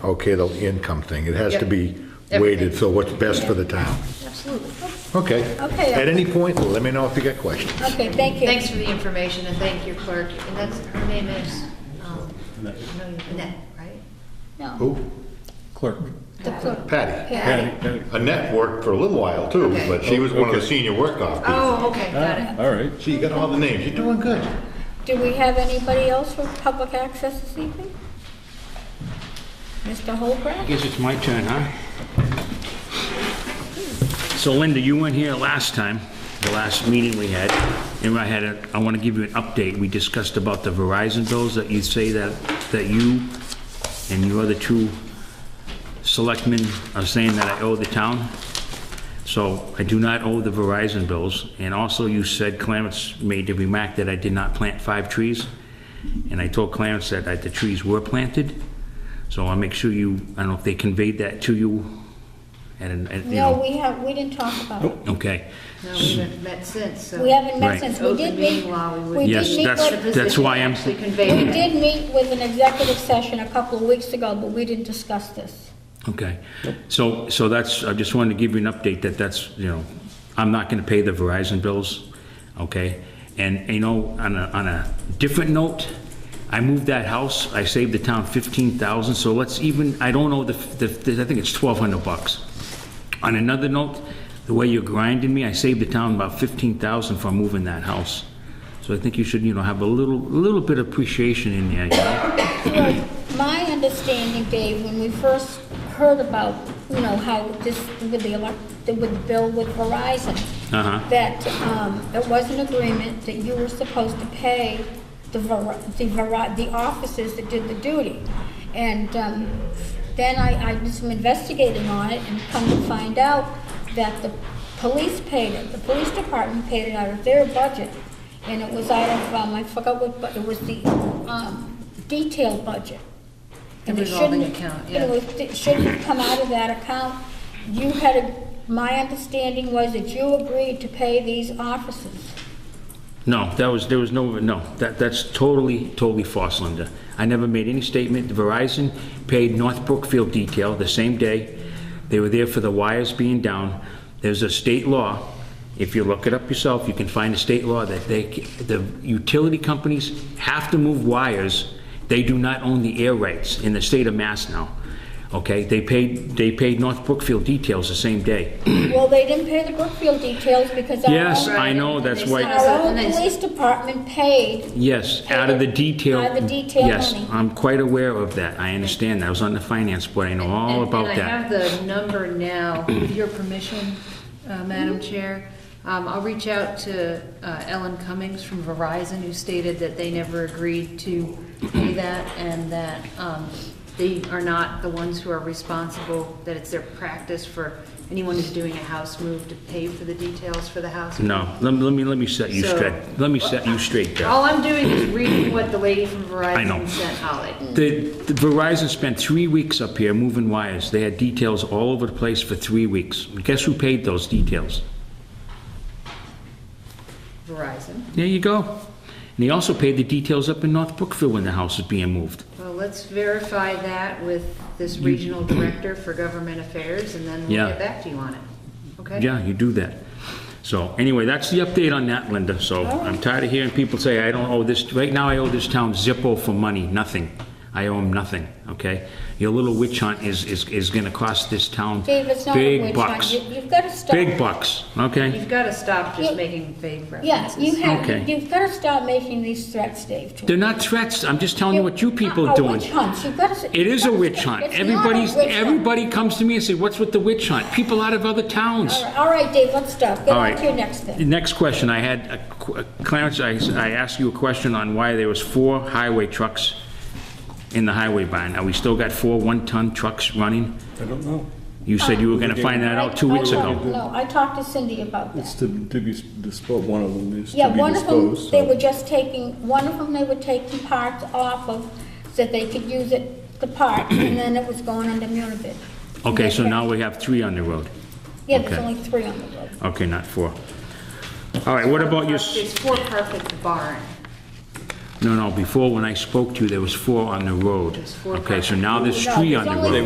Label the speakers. Speaker 1: okay, the income thing. It has to
Speaker 2: Yep.
Speaker 1: be
Speaker 2: Everything.
Speaker 1: weighted, so what's best for the town.
Speaker 2: Absolutely.
Speaker 1: Okay.
Speaker 3: Okay.
Speaker 1: At any point, let me know if you got questions.
Speaker 3: Okay, thank you.
Speaker 2: Thanks for the information and thank your clerk. And that's, her name is, um, no, Annette, right?
Speaker 3: No,
Speaker 1: Who?
Speaker 4: Clerk.
Speaker 3: the clerk.
Speaker 1: Patty.
Speaker 3: Yeah.
Speaker 1: Annette worked for a little while too,
Speaker 2: Okay.
Speaker 1: but she was one of the
Speaker 4: Okay.
Speaker 1: senior work-off people.
Speaker 2: Oh, okay, got
Speaker 5: Uh,
Speaker 2: it.
Speaker 4: All right.
Speaker 1: She got all the names. You're doing good.
Speaker 3: Do we have anybody else for public access this evening? Mr. Holcraft?
Speaker 5: Guess it's my turn, huh? So Linda, you weren't here last time, the last meeting we had, and I had a, I want to give you an update. We discussed about the Verizon bills that you say that, that you and your other two selectmen are saying that I owe the town. So I do not owe the Verizon bills. And also you said Clarence made the remark that I did not plant five trees. And I told Clarence that I- the trees were planted. So I'll make sure you, I don't know if they conveyed that to you and, and, you know.
Speaker 3: No, we have, we didn't talk about it.
Speaker 5: Okay.
Speaker 2: No, we haven't met since, so.
Speaker 3: We haven't met
Speaker 5: Right.
Speaker 3: since, we did
Speaker 2: Open
Speaker 3: meet,
Speaker 2: meeting law, we would-
Speaker 3: we
Speaker 5: Yes,
Speaker 3: did meet,
Speaker 5: that's-
Speaker 3: with-
Speaker 5: that's why I'm-
Speaker 2: Actually
Speaker 3: we
Speaker 2: conveyed it.
Speaker 3: did meet with an executive session a couple of weeks ago, but we didn't discuss this.
Speaker 5: Okay. So, so that's, I just wanted to give you an update that that's, you know, I'm not going to pay the Verizon bills, okay? And, you know, on a, on a different note, I moved that house, I saved the town 15,000, so let's even, I don't know, the, the, I think it's 1,200 bucks. On another note, the way you're grinding me, I saved the town about 15,000 from moving that house. So I think you should, you know, have a little, little bit of appreciation in there, you know?
Speaker 3: Well, My understanding, Dave, when we first heard about, you know, how this, with the elect, with the bill with Verizon,
Speaker 5: Uh-huh.
Speaker 3: that um, it was an agreement that you were supposed to pay the Ver- the Ver- the officers that did the duty. And um, then I I did some investigating on it and come to find out that the police paid it, the police department paid it out of their budget. And it was out of, um, I forgot what, but it was the um, detail budget. And it
Speaker 2: revolving
Speaker 3: shouldn't-
Speaker 2: account,
Speaker 3: it
Speaker 2: yeah.
Speaker 3: was- It shouldn't come out of that account. You had, a- my understanding was that you agreed to pay these officers.
Speaker 5: No, that was, there was no, no, that, that's totally, totally false, Linda. I never made any statement. Verizon paid North Brookfield Detail the same day. They were there for the wires being down. There's a state law, if you look it up yourself, you can find a state law that they, the utility companies have to move wires. They do not own the air rights in the state of Mass now, okay? They paid, they paid North Brookfield Details the same day.
Speaker 3: Well, they didn't pay the Brookfield details because our
Speaker 5: Yes,
Speaker 3: own,
Speaker 5: I know, that's why.
Speaker 3: our own police department paid.
Speaker 5: Yes, out of the detail.
Speaker 3: Out of the detail
Speaker 5: Yes,
Speaker 3: money.
Speaker 5: I'm quite aware of that. I understand. I was on the finance board. I know all
Speaker 2: And-
Speaker 5: about
Speaker 2: And I have
Speaker 5: that.
Speaker 2: the number now, with your permission, uh, Madam Chair. Um, I'll reach out to uh, Ellen Cummings from Verizon, who stated that they never agreed to
Speaker 5: Mm-hmm.
Speaker 2: pay that, and that um, they are not the ones who are responsible, that it's their practice for anyone who's doing a house move to pay for the details for the house. move.
Speaker 5: No, let me, let me, let me set you
Speaker 2: So-
Speaker 5: straight. Let me set you straight, Jeff.
Speaker 2: All I'm doing is reading what the lady from
Speaker 5: I know.
Speaker 2: Verizon sent Holly.
Speaker 5: The the Verizon spent three weeks up here moving wires. They had details all over the place for three weeks. Guess who paid those details?
Speaker 2: Verizon.
Speaker 5: There you go. And he also paid the details up in North Brookfield when the house was being moved.
Speaker 2: Well, let's verify that with this regional director for government affairs, and then
Speaker 5: Yeah.
Speaker 2: we'll get back to you on it. Okay?
Speaker 5: Yeah, you do that. So anyway, that's the update on that, Linda. So I'm tired of hearing people say, I don't owe this, right now I owe this town Zippo for money, nothing. I owe them nothing, okay? Your little witch hunt is, is, is gonna cost this town
Speaker 3: Dave, it's not a
Speaker 5: big
Speaker 3: witch hunt.
Speaker 5: bucks.
Speaker 3: You- You've got to stop.
Speaker 5: Big bucks, okay?
Speaker 2: You've got to stop
Speaker 3: Yeah.
Speaker 2: just making vague
Speaker 3: Yeah,
Speaker 2: references.
Speaker 3: you
Speaker 5: Okay.
Speaker 3: have, you've got to stop making these threats, Dave. to
Speaker 5: They're not threats, I'm just telling you what you people are
Speaker 3: Are
Speaker 5: doing.
Speaker 3: witch hunts. You've got to.
Speaker 5: It is a witch hunt.
Speaker 3: It's not a
Speaker 5: Everybody's,
Speaker 3: witch hunt.
Speaker 5: everybody comes to me and say, what's with the witch hunt? People out of other towns.
Speaker 3: All right, All right, Dave, let's stop. Get
Speaker 5: All
Speaker 3: on
Speaker 5: right.
Speaker 3: to your next
Speaker 5: The
Speaker 3: thing.
Speaker 5: Next question, I had, a qu- Clarence, I I asked you a question on why there was four highway trucks in the highway barn. Are we still got four one-ton trucks running?
Speaker 4: I don't know.
Speaker 5: You said you were going to find that out
Speaker 3: I-
Speaker 5: two
Speaker 3: I
Speaker 5: weeks
Speaker 3: talked-
Speaker 5: ago.
Speaker 3: No, I talked to Cindy about that.
Speaker 4: It's to, to be disposed, one of them is to
Speaker 3: Yeah,
Speaker 4: be
Speaker 3: one of them,
Speaker 4: disposed.
Speaker 3: they
Speaker 4: so-
Speaker 3: were just taking, one of them, they were taking parts off of, so that they could use it, the part, and then it was going under Munibid.
Speaker 5: Okay, so now we have three on the road.
Speaker 3: Yeah, there's
Speaker 5: okay.
Speaker 3: only three on the road.
Speaker 5: Okay, not four. All right, what about your, s-
Speaker 2: It's for profit barn.
Speaker 5: No, no, before, when I spoke to you, there was four on the road.
Speaker 2: There's four
Speaker 5: Okay, so
Speaker 2: properties.
Speaker 5: now there's
Speaker 3: No,
Speaker 5: three
Speaker 3: there's
Speaker 5: on the
Speaker 3: only
Speaker 5: road.